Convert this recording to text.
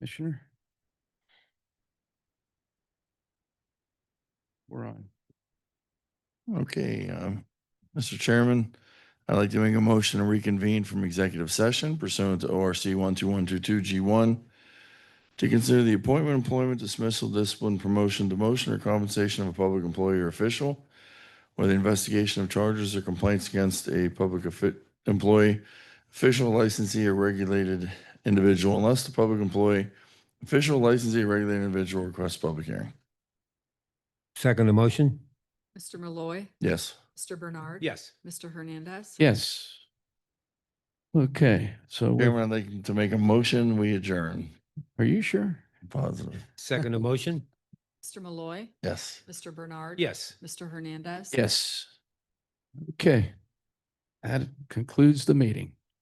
Commissioner? We're on. Okay, um, Mr. Chairman, I'd like to make a motion to reconvene from executive session pursuant to ORC one two one two two G one to consider the appointment, employment, dismissal, discipline, promotion, demotion, or compensation of a public employee or official, or the investigation of charges or complaints against a public offi- employee, official licensee, or regulated individual, unless the public employee, official licensee, or regulated individual requests public hearing. Second the motion? Mr. Malloy, Yes. Mr. Bernard. Yes. Mr. Hernandez. Yes. Okay, so we- Chairman, I'd like to make a motion, we adjourn. are you sure? Positive. Second the motion? Mr. Malloy, Yes. Mr. Bernard. Yes. Mr. Hernandez. Yes. Okay. That concludes the meeting.